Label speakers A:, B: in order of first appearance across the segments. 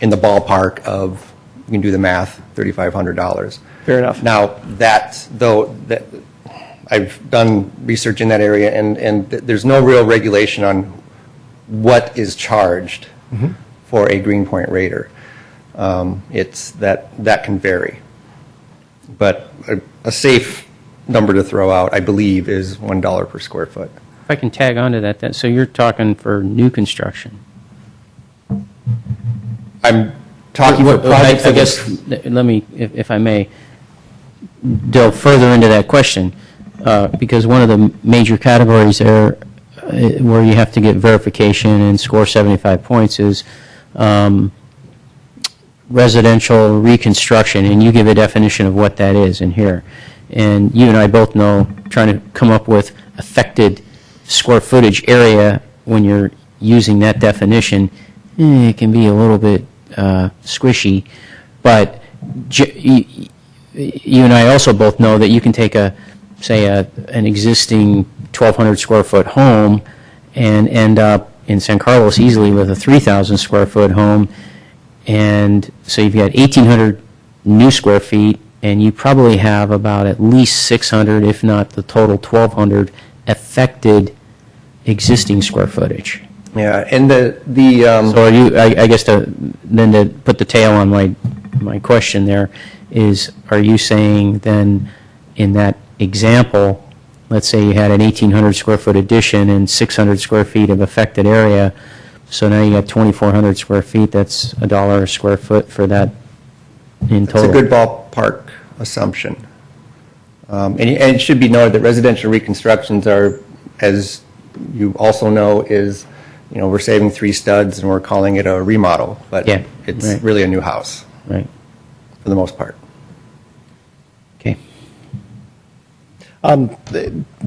A: in the ballpark of, you can do the math, $3,500.
B: Fair enough.
A: Now, that, though, that, I've done research in that area, and, and th- there's no real regulation on what is charged
C: Mm-hmm.
A: for a Greenpoint Raider. Um, It's, that, that can vary. But a- a safe number to throw out, I believe, is $1 per square foot.
C: If I can tag on to that, then, so you're talking for new construction?
A: I'm talking for
C: What- what- I-
A: projects
C: I
A: that
C: guess,
A: would-
C: th- let me, if if I may, delve further into that question, uh, because one of the major categories there, uh, where you have to get verification and score 75 points, is um, residential reconstruction, and you give a definition of what that is in here. And you and I both know, trying to come up with affected square footage area when you're using that definition, eh, it can be a little bit uh, squishy. But j- y- y- you and I also both know that you can take a, say, a, an existing 1,200 square foot home and end up in San Carlos easily with a 3,000 square foot home. And so you've got 1,800 new square feet, and you probably have about at least 600, if not the total 1,200, affected existing square footage.
A: Yeah, and the, the, um,
C: So are you, I, I guess to, then to put the tail on my, my question there is, are you saying then in that example, let's say you had an eighteen hundred square foot addition and six hundred square feet of affected area, so now you got twenty-four hundred square feet, that's a dollar a square foot for that in
A: It's a
C: total?
A: good ballpark assumption. Um, And and it should be noted that residential reconstructions are, as you also know, is, you know, we're saving three studs and we're calling it a remodel, but
C: Yeah,
A: it's
C: right.
A: really a new house,
C: Right,
A: for the most part.
C: okay.
B: Um,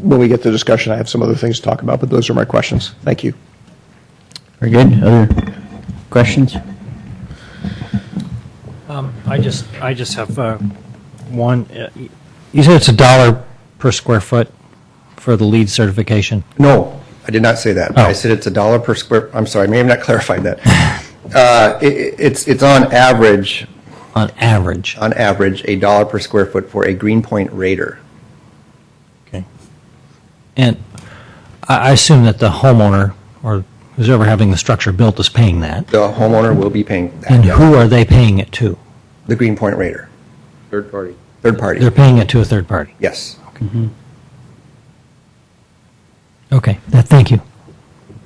B: When we get to discussion, I have some other things to talk about, but those are my questions. Thank you.
C: Very good, other questions?
D: Um, I just, I just have uh, one. Uh, You said it's a dollar per square foot for the lead certification.
A: No, I did not say that. I
D: Oh.
A: said it's a dollar per square, I'm sorry, I may have not clarified that. Uh, i- i- It's, it's on average,
D: On average.
A: on average, a dollar per square foot for a Greenpoint Raider.
D: Okay. And I I assume that the homeowner, or who's ever having the structure built, is paying that.
A: The homeowner will be paying
D: And
A: that,
D: who are they paying it to?
A: the Greenpoint Raider,
E: Third party.
A: third party,
D: They're paying it to a third party.
A: yes.
D: Okay, that- thank you.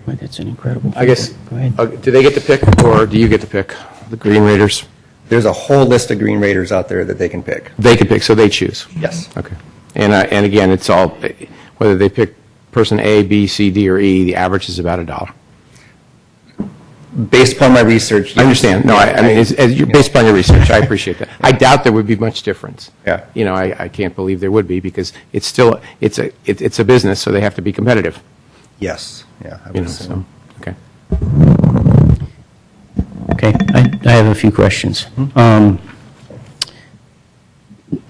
C: Boy, That's an incredible.
E: I guess,
C: Go ahead.
E: uh, do they get to pick, or do you get to pick? The Green Raiders?
A: There's a whole list of Green Raiders out there that they can pick.
E: They can pick, so they choose?
A: Yes.
E: Okay. And, I- and again, it's all, whether they pick person A, B, C, D, or E, the average is about a dollar.
A: Based upon my research.
E: I understand. No, I, I mean, it's, as you're, based upon your research, I appreciate that. I doubt there would be much difference.
A: Yeah.
E: You know, I, I can't believe there would be, because it's still, it's a, it- it's a business, so they have to be competitive,
A: Yes, yeah. I
E: you
A: would
E: know, so,
A: assume.
E: okay.
C: Okay, I, I have a few questions.
A: Hmm?
C: Um,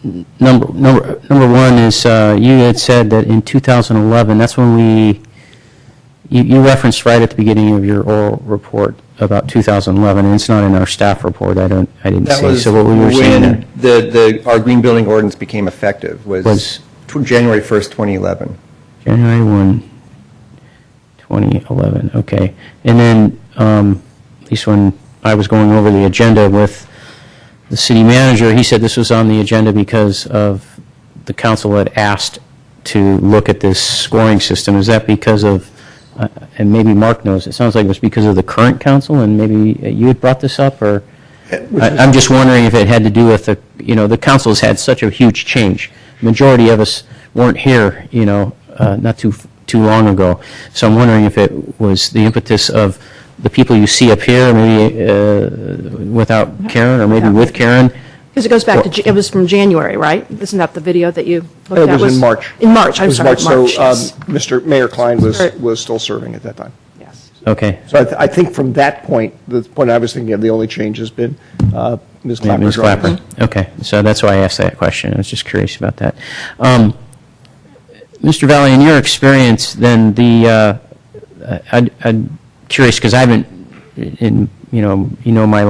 C: n- Number, number, number one is, uh, you had said that in 2011, that's when we, you, you referenced right at the beginning of your oral report about 2011, and it's not in our staff report, I don't, I didn't
A: That
C: see.
A: was
C: So what we were saying there,
A: when the, the, our green building ordinance became effective was
C: Was-
A: tw- January 1st, 2011.
C: January 1, 2011, okay. And then, um, at least when I was going over the agenda with the city manager, he said this was on the agenda because of the council had asked to look at this scoring system. Is that because of, uh, and maybe Mark knows, it sounds like it was because of the current council, and maybe uh, you had brought this up, or? I- I'm just wondering if it had to do with the, you know, the council's had such a huge change. Majority of us weren't here, you know, uh, not too, too long ago. So I'm wondering if it was the impetus of the people you see up here, maybe uh, without Karen, or maybe with Karen,
F: Because it goes back to, J- it was from January, right? Isn't that the video that you looked at?
B: It was in March.
F: In March,
B: It
F: I'm
B: was
F: sorry,
B: So,
F: March,
B: um,
F: yes.
B: Mr. Mayor Klein was,
F: Sorry.
B: was still serving at that time.
F: Yes.
C: okay.
B: So I, th- I think from that point, the point I was thinking of, the only change has been uh, Ms. Clapper.
C: Ms. Clapper. Okay, so that's why I asked that question. I was just curious about that. Um, Mr. Valley, in your experience, then the, uh, I- I'd- I'm curious, because I haven't, in, you know, you know my